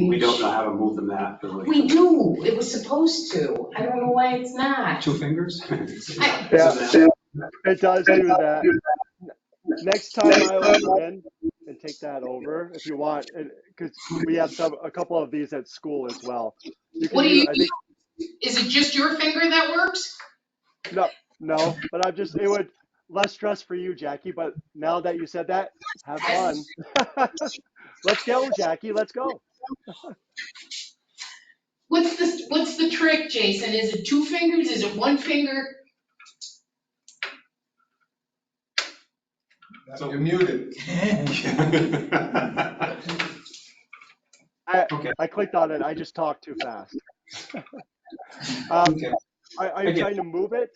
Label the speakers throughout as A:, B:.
A: don't know how to move the map, but like,
B: We do, it was supposed to, I don't know why it's not.
A: two fingers?
B: I-
C: Yeah, it does do that. Next time I'll in and take that over if you want, because we have some, a couple of these at school as well. You can
B: What do
C: use-
B: you,
C: I think-
B: is it just your finger that works?
C: No, but I'm just, it would, less stress for you, Jackie, but now that you said that, have fun. Let's go, Jackie, let's go.
B: What's the, what's the trick, Jason? Is it two fingers, is it one finger?
A: So-
D: You're muted.
A: Okay.
C: I clicked on it, I just talked too fast. Um,
D: Okay.
C: Are, are you
A: Okay.
C: trying to move it?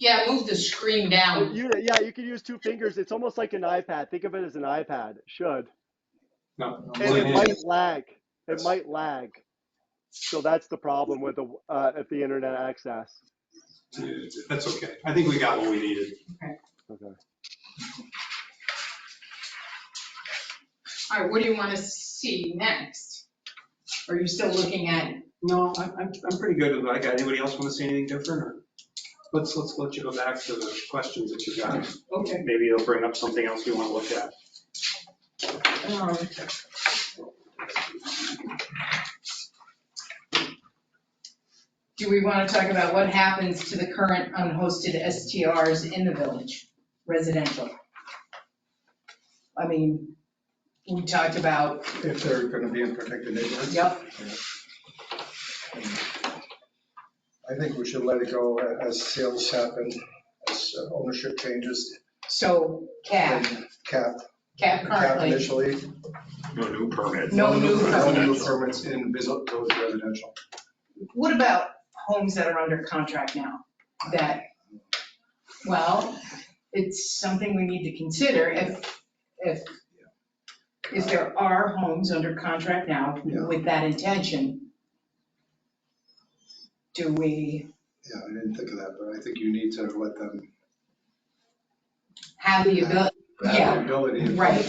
B: Yeah, move the screen
C: But
B: down.
C: You, yeah, you could use two fingers. It's almost like an iPad. Think of it as an iPad. It Should.
A: No.
C: And it might lag. It might lag. So that's the problem with the uh, at the internet access.
A: That's okay. I think we got what we needed.
C: Okay.
B: All right, what do you want to see next? Are you still looking at,
A: No, I'm, I'm, I'm pretty good with what I got. Anybody else want to say anything different or? Let's, let's let you go back to the questions that you got.
B: okay,
A: Maybe it'll bring up something else you want to look at.
B: um, do we want to talk about what happens to the current unhosted STRs in the village, residential? I mean, we talked about,
D: If they're gonna be in protected neighborhoods.
B: yep,
D: I think we should let it go as sales happen, as ownership changes.
B: so cap,
D: and Cap,
B: cap
D: cap
B: currently,
D: initially.
E: No new permits.
B: no new
D: No
B: permits.
D: new permits in business, those residential.
B: What about homes that are under contract now? That, well, it's something we need to consider if, if, if there are homes under contract now
D: Yeah.
B: with that intention. Do we
D: Yeah, I didn't think of that, but I think you need to let them
B: have the ability,
D: have the ability. if-
B: right?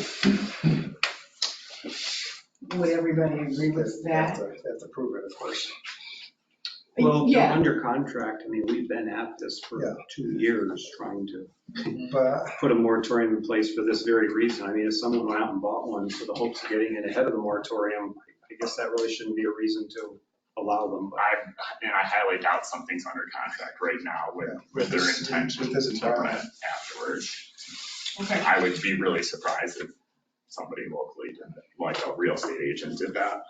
B: Would everybody agree
D: if they
B: with that?
D: have to- They have to prove it, of course.
A: Well, if they're
B: Yeah,
A: under contract, I mean, we've been at this
D: Yeah.
A: for two years trying to
D: But
A: put a moratorium in place for this very reason. I mean, if someone went out and bought one for the hopes of getting it ahead of the moratorium, I guess that really shouldn't be a reason to allow them. But
E: I, and I highly doubt something's under contract right now with, with their
D: With this-
E: intention
D: with this
E: to
D: environment.
E: rent afterwards.
B: okay.
E: I would be really surprised if somebody locally did that, like a real estate agent did that.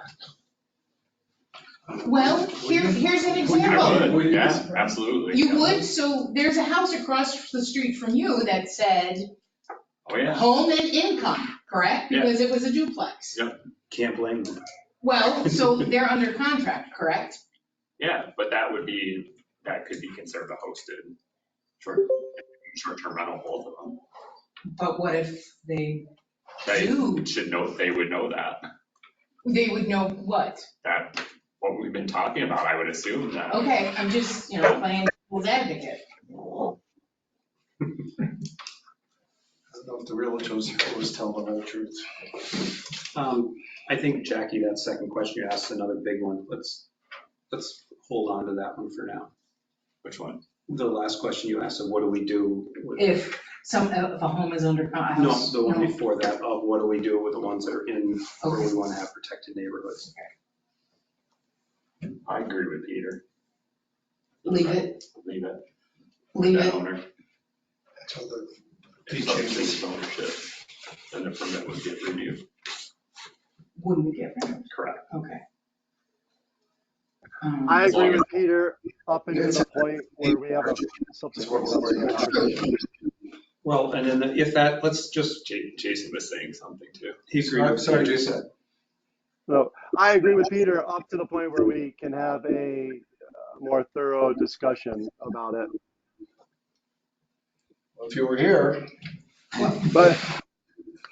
B: Well, here, here's an example.
E: I
D: would.
E: would, yeah, absolutely.
B: You would, so there's a house across the street from you that said
E: Oh, yeah.
B: home and income, correct?
E: Yeah.
B: Because it was a duplex.
A: Can't blame them.
B: Well, so they're under contract, correct?
E: Yeah, but that would be, that could be considered a hosted short, short-term rental, both of them.
B: But what if they,
E: They
B: Dude.
E: should know, they would know that,
B: they would know what?
E: that, what we've been talking about, I would assume that.
B: Okay, I'm just, you know, playing devil's advocate.
D: I don't know if the realtors always tell the whole truth.
A: Um, I think Jackie, that second question you asked, is another big one. Let's, let's hold on to that one for now.
E: Which one?
A: The last question you asked of what do we do? with-
B: If some, if a home is under, a
A: No,
B: house.
A: the one before that of what do we do with the ones that are in where we
B: Okay.
A: want to have protected neighborhoods?
E: I agree with Peter.
B: Leave it,
E: Leave it,
B: leave
E: that
B: it.
E: owner.
D: Until the
E: If something changes ownership, then the permit would get renewed.
B: Wouldn't get rid of it,
E: Correct.
B: okay. Um,
C: I
E: As long
C: agree
E: as-
C: with Peter up until the point where we have a subsequent conversation.
A: Well, and then if that, let's just,
E: Ja- Jason was saying something too.
A: he agreed
D: I'm
A: with
D: sorry,
A: you.
D: Jason.
C: So I agree with Peter up to the point where we can have a uh, more thorough discussion about it.
D: If you were here,
C: But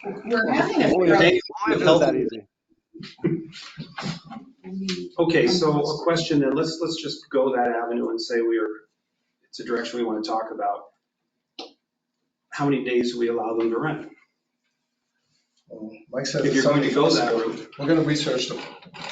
B: Um, We're having a.
C: only if
A: Okay,
C: only if it's that easy.
A: Okay, so a question then, let's, let's just go that avenue and say we are, it's a direction we want to talk about. How many days do we allow them to rent?
D: well, Mike said.
A: If you're going to go that route.
D: We're gonna research the